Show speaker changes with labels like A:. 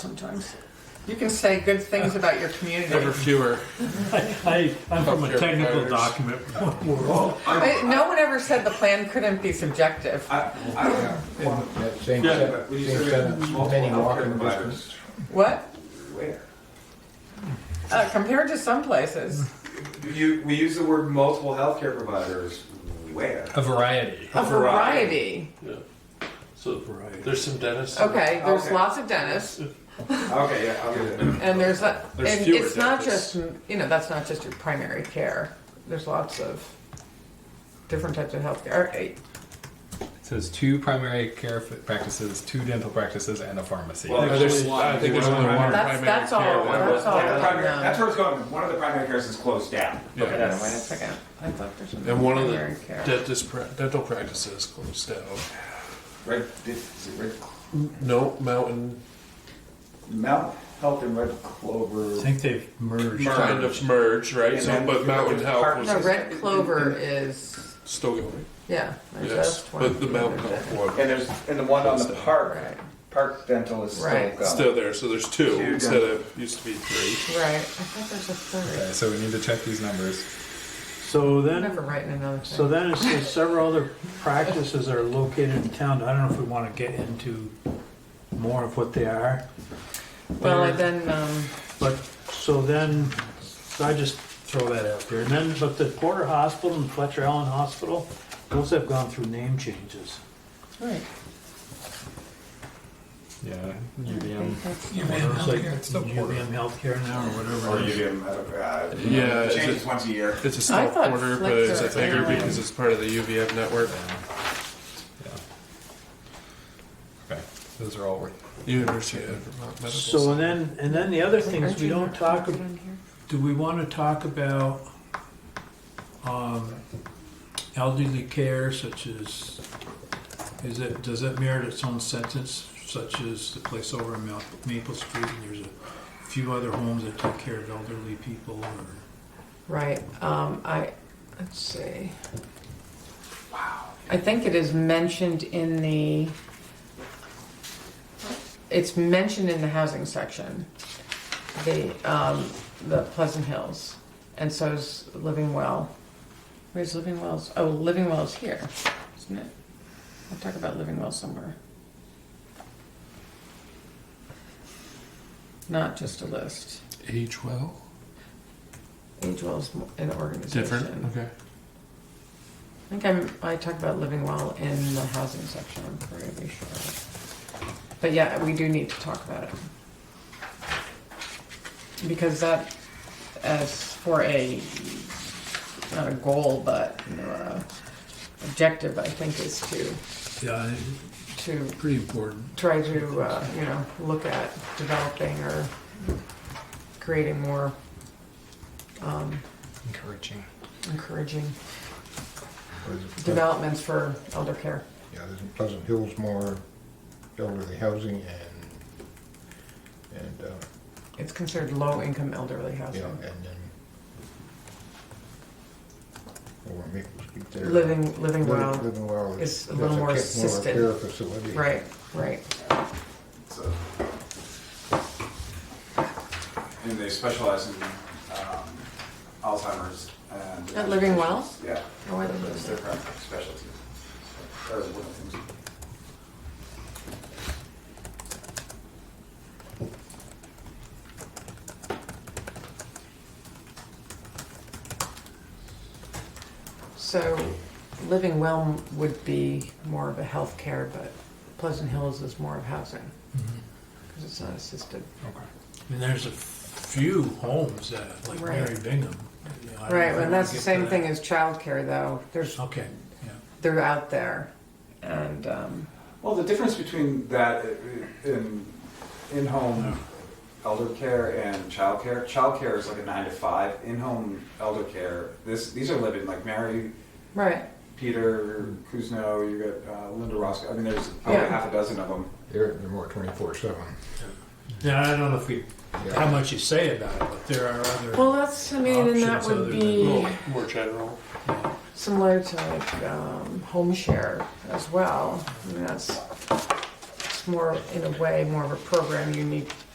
A: sometimes. You can say good things about your community.
B: Ever fewer.
C: I, I'm from a
B: Healthcare
C: technical
B: providers.
C: document
D: Oh,
C: world.
A: I- no one ever said the plan couldn't be subjective.
D: I, I don't know.
E: That same,
B: Yeah.
E: set-
D: When you
E: same
D: say
E: sentence,
D: multiple
E: many
D: healthcare
E: walking
D: providers,
E: distance.
A: What?
D: Where?
A: Uh, compared to some places.
D: You, we use the word multiple healthcare providers. Where?
B: A variety.
A: A variety.
B: So there's some dentists.
A: Okay, there's
D: Okay.
A: lots of dentists,
D: Okay, yeah, I'll get it.
A: and there's, a,
B: There's
A: and
B: fewer
A: it's not
B: dentists.
A: just, you know, that's not just your primary care. There's lots of different types of healthcare. Eh,
F: It says two primary care f- practices, two dental practices, and a pharmacy.
D: Well,
B: No, there's, I think there's only one.
A: That's,
B: primary
A: that's
B: care.
A: all. That's all.
D: One of the primary-
A: no.
D: That's where it's going. One of the primary cares is closed down.
B: Yeah.
A: Wait a second. I thought there's another
B: And one of the
A: primary care.
B: dentist pra- dental practices closed down.
D: Red, is it Red,
B: No, Mountain
D: Mount Health and Red Clover.
C: I think they've merged.
B: kind of merged, right?
D: And
B: So,
D: then
B: but Mountain
D: there's
B: Health
D: partners.
A: No,
B: was
A: red clover is
B: still going.
A: yeah. there's
B: Yes,
A: just one
B: but the
A: of
B: Mountain
A: other
B: Health
A: things.
B: one
D: And there's, and the one on the park,
A: Right.
D: Park Dental is still
A: Right.
D: going.
B: still there. So there's two
D: Two
B: instead of used to be three.
A: Right. I thought there's a third.
F: Okay, so we need to check these numbers.
C: So
A: I'm
C: then,
A: never writing another thing.
C: so then it says several other practices are located in town. I don't know if we want to get into more of what they are.
A: well, and then um,
C: But, so then, so I just throw that out there. And then, but the Porter Hospital and Fletcher Allen Hospital, those have gone through name changes.
A: right.
F: Yeah,
A: I
F: UVM.
A: think that's-
C: UVM Healthcare, it's still Porter. UVM Healthcare now, or
D: Or
C: whatever.
D: you
C: it is.
D: give them, uh,
B: Yeah, is
D: changes
B: it-
D: once a year.
B: It's a
A: I
B: small
A: thought
B: quarter, but
A: Flickr
B: it's a bigger
A: apparently-
B: because it's part of the UVM network.
F: Yeah. Okay, those are all worth.
B: University of Vermont Medical.
C: So and then, and then the other things,
A: Aren't
C: we
A: you
C: don't
A: marked
C: talk,
A: it
C: ab-
A: on here?
C: do we want to talk about um, elderly care such as, is it, does that merit its own sentence such as the place over in Mal- Maple Street and there's a few other homes that take care of elderly people or?
A: Right. Um, I let's see. Wow. I think it is mentioned in the. It's mentioned in the housing section, the um, the Pleasant Hills, and so is Living Well. Where's Living Wells? Oh, Living Wells here, isn't it? I'll talk about Living Well somewhere. Not just a list.
B: age well,
A: Age Well is an organization.
B: different. Okay.
A: I think I'm, I talked about living well in the housing section, I'm pretty sure. But yeah, we do need to talk about it. Because that, as for a, not a goal, but, you know, a objective, I think is to,
C: Yeah, I-
A: to
C: pretty important.
A: try to, uh, you know, look at developing or creating more, um,
F: Encouraging.
A: encouraging
E: Or is it Pleasant-
A: developments for elder care.
E: Yeah, there's Pleasant Hills more elderly housing and, and, uh,
A: It's considered low-income elderly
E: yeah,
A: housing.
E: and then. Over in Maple Street there.
A: Living, living
E: Living-
A: well.
E: Living well.
A: is a
E: that's
A: little more
E: care-
A: assisted.
E: Care facility.
A: Right, right.
D: So, and they specialize in um, Alzheimer's and.
A: At Living Well?
D: Yeah,
A: Oh, I love
D: that's
A: those.
D: their primary specialty. That was one of the things.
A: So, living well would be more of a healthcare, but Pleasant Hills is more of housing
C: Mm-hmm.
A: because it's not assisted.
F: Okay.
C: I mean, there's a few homes that, like
A: Right.
C: Mary Bingham. you know, I don't
A: Right,
C: know if
A: and that's
C: we
A: the
C: get
A: same
C: to
A: thing
C: that. Oh.
A: as childcare, though. There's
C: Okay, yeah.
A: they're out there, and um,
D: Well, the difference between that uh, in in-home elder care and childcare. Childcare is like a nine to five. In-home elder care. This these are living like Mary,
A: right,
D: Peter, Kuzno. You got uh, Linda Roscoe. I mean, there's probably
A: Yeah.
D: half a dozen of them.
E: They're, they're more twenty-four seven.
C: Now, I don't know if we, how much you say about it, but there are other.
A: Well, that's I mean, and that
C: Options
A: would
C: other than-
A: be
B: More, more general.
A: similar to like um, home share as well. I mean, that's it's more in a way more of a program you need